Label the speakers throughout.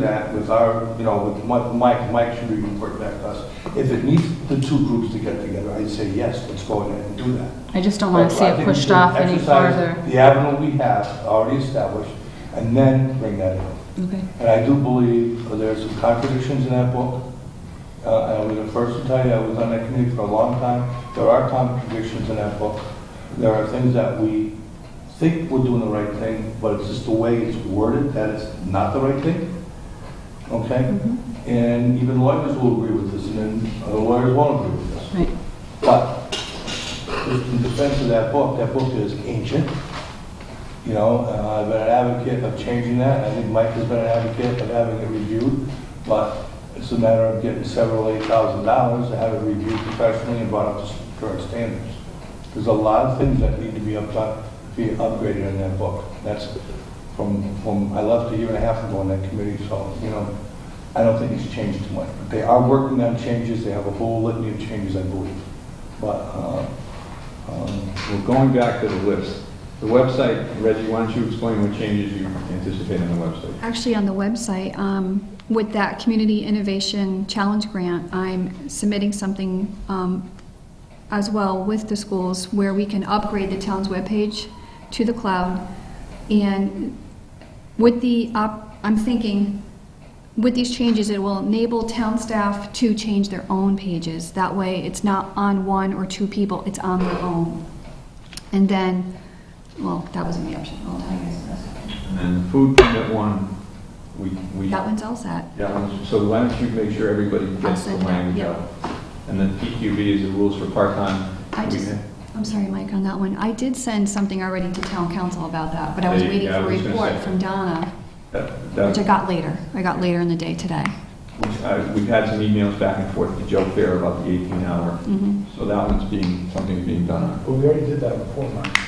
Speaker 1: that with our, you know, with Mi- Mike, Mike should report back to us. If it needs the two groups to get together, I'd say yes, let's go ahead and do that.
Speaker 2: I just don't want to see
Speaker 1: I
Speaker 2: it
Speaker 1: think we
Speaker 2: pushed
Speaker 1: should
Speaker 2: off any
Speaker 1: exercise
Speaker 2: farther.
Speaker 1: The avenue we have already established, and then bring that in.
Speaker 2: Okay,
Speaker 1: And I do believe uh, there are some contradictions in that book. Uh, I was the first to tell you, I was on that committee for a long time. There are contradictions in that book. There are things that we think we're doing the right thing, but it's just the way it's worded that it's not the right thing. Okay?
Speaker 2: Mm-hmm.
Speaker 1: And even lawyers will agree with this, and then other lawyers won't agree with this.
Speaker 2: right.
Speaker 1: But just in defense of that book, that book is ancient. You know, uh, I've been an advocate of changing that. I think Mike has been an advocate of having it reviewed. But it's a matter of getting several eight thousand dollars to have it reviewed professionally and brought up to s- current standards. There's a lot of things that need to be updone, be upgraded in that book. That's from, from, I left a year and a half ago on that committee, so, you know, I don't think it's changed too much. But they are working on changes. They have a whole litany of changes, I believe. But, uh, um,
Speaker 3: Well, uh, going back to the list, the website, Reggie, why don't you explain what changes you anticipate on the website?
Speaker 4: Actually, on the website, um, with that Community Innovation Challenge Grant, I'm submitting something um, as well with the schools where we can upgrade the town's webpage to the cloud. And with the, op- I'm thinking, with these changes, it will enable town staff to change their own pages. That way, it's not on one or two people, it's on their own. And then, well, that wasn't the option, I'll tell you guys this.
Speaker 3: And then the food permit one, we, we.
Speaker 4: That one's all set.
Speaker 3: That one, so why don't you make sure everybody gets the
Speaker 4: send that,
Speaker 3: language
Speaker 4: yeah.
Speaker 3: out? And then PQB is the rules for part-time.
Speaker 4: I just,
Speaker 3: weekend.
Speaker 4: I'm sorry, Mike, on that one. I did send something already to town council about that, but I was
Speaker 3: There you
Speaker 4: waiting
Speaker 3: go,
Speaker 4: for a
Speaker 3: I was gonna
Speaker 4: report
Speaker 3: say.
Speaker 4: from Donna,
Speaker 3: That- that-
Speaker 4: which I got later. I got later in the day today.
Speaker 3: uh, We've had some emails back and forth to Joe Fair about the 18 hour,
Speaker 4: Mhm.
Speaker 3: so that one's being, something's being done on.
Speaker 5: But we already did that before, Mike.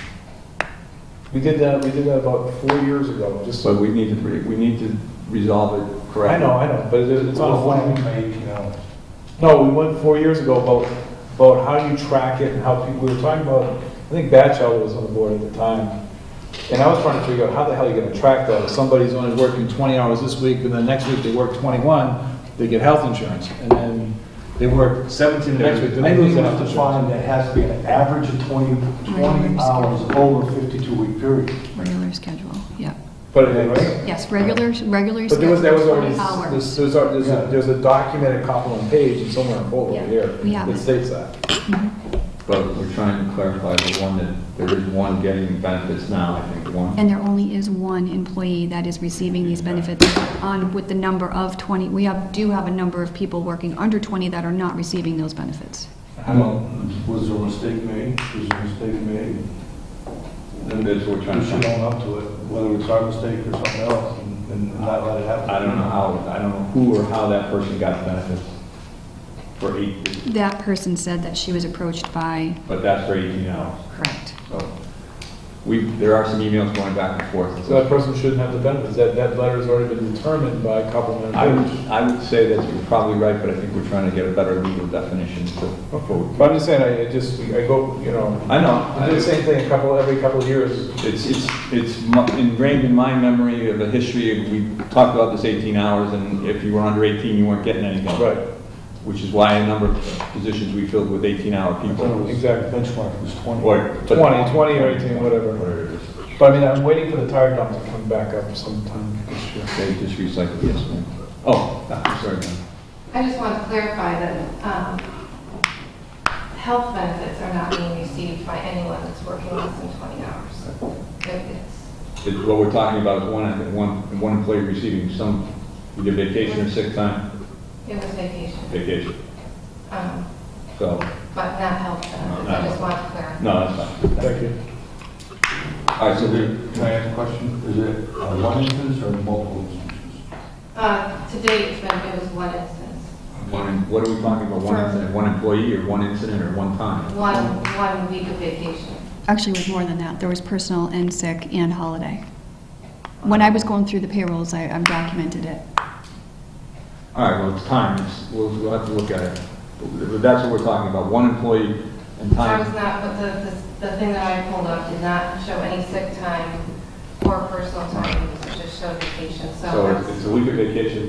Speaker 5: We did that, we did that about four years ago, just,
Speaker 3: So we need to, re- we need to resolve it correctly.
Speaker 5: I know, I know, but it- it's on a
Speaker 1: Well, we
Speaker 5: plan.
Speaker 1: may, you know,
Speaker 5: No, we went four years ago about, about how you track it and how people, we were talking about, I think Batchell was on the board at the time. And I was trying to figure out how the hell you're gonna track that. If somebody's only working twenty hours this week and then next week they work twenty-one, they get health insurance. And then they work seventeen the next week, then
Speaker 1: I
Speaker 5: they lose
Speaker 1: think
Speaker 5: the
Speaker 1: it's
Speaker 5: health insurance.
Speaker 1: defined that has to be an average of 20, 20 hours over 52-week period.
Speaker 4: Regular schedule, yep.
Speaker 5: But it is.
Speaker 4: Yes, regular, regular
Speaker 5: But there
Speaker 4: schedule,
Speaker 5: was, there was
Speaker 4: 20
Speaker 5: already,
Speaker 4: hours.
Speaker 5: there's, there's a- there's a, there's a documented complement page and somewhere in Bold
Speaker 4: Yeah,
Speaker 5: over here.
Speaker 4: we have
Speaker 5: That
Speaker 4: it.
Speaker 5: states that.
Speaker 3: But we're trying to clarify the one that, there is one getting benefits now, I think, one.
Speaker 4: And there only is one employee that is receiving these benefits on, with the number of 20, we have, do have a number of people working under 20 that are not receiving those benefits.
Speaker 1: Well, Was there a mistake made? Was there a mistake made?
Speaker 3: And that's what we're trying
Speaker 1: We
Speaker 3: to
Speaker 1: should
Speaker 3: find.
Speaker 1: own up to it, whether it's our mistake or something else, and- and not let it happen.
Speaker 3: I don't know how, I don't know who or how that person got benefits for eight,
Speaker 4: That person said that she was approached by,
Speaker 3: but that's for 18 hours.
Speaker 4: correct.
Speaker 3: So we, there are some emails going back and forth.
Speaker 5: So that person shouldn't have the benefits. That, that letter's already been determined by complement
Speaker 3: I would,
Speaker 5: page.
Speaker 3: I would say that you're probably right, but I think we're trying to get a better legal definition to vote.
Speaker 5: But I'm just saying, I I just, I go, you know,
Speaker 3: I know.
Speaker 5: I do the same thing a couple, every couple of years.
Speaker 3: It's, it's, it's mu- ingrained in my memory of the history, we talked about this 18 hours, and if you were under 18, you weren't getting anything.
Speaker 5: Right.
Speaker 3: Which is why a number of positions we filled with 18-hour
Speaker 1: I thought it
Speaker 3: people.
Speaker 1: was-
Speaker 5: Exactly.
Speaker 1: Benchmark was 20.
Speaker 3: Or- but-
Speaker 5: 20, 20 or 18, whatever.
Speaker 3: Whatever it is.
Speaker 5: But I mean, I'm waiting for the tire dump to come back up sometime this year.
Speaker 3: They just recycle, yes, ma'am. Oh, I'm sorry, ma'am.
Speaker 6: I just want to clarify that um, health benefits are not being received by anyone that's working less than 20 hours. It- it's-
Speaker 3: It- What we're talking about is one, one, one employee receiving some, either vacation or sick time,
Speaker 6: It was vacation,
Speaker 3: vacation.
Speaker 6: um,
Speaker 3: So,
Speaker 6: but not health benefits. I just want to clarify.
Speaker 3: no, that's fine.
Speaker 5: Thank you.
Speaker 3: All right, so
Speaker 1: Is
Speaker 3: we,
Speaker 1: it- Can I ask a question? Is it uh, one instance or multiple instances?
Speaker 6: Uh, Today, it's been, it was one instance,
Speaker 3: one- what are we talking about? One incident, one employee, or one incident, or one time?
Speaker 6: one, one week of vacation.
Speaker 4: Actually, it was more than that. There was personal and sick and holiday. When I was going through the payrolls, I, I documented it.
Speaker 3: All right, well, it's time, It's- we'll, we'll have to look at it. But That's what we're talking about, one employee and
Speaker 6: I was
Speaker 3: time.
Speaker 6: not, but the, the- the thing that I pulled up did not show any sick time or personal time. It was just showed vacation, so.
Speaker 3: So
Speaker 6: that's-
Speaker 3: it's- it's a week of vacation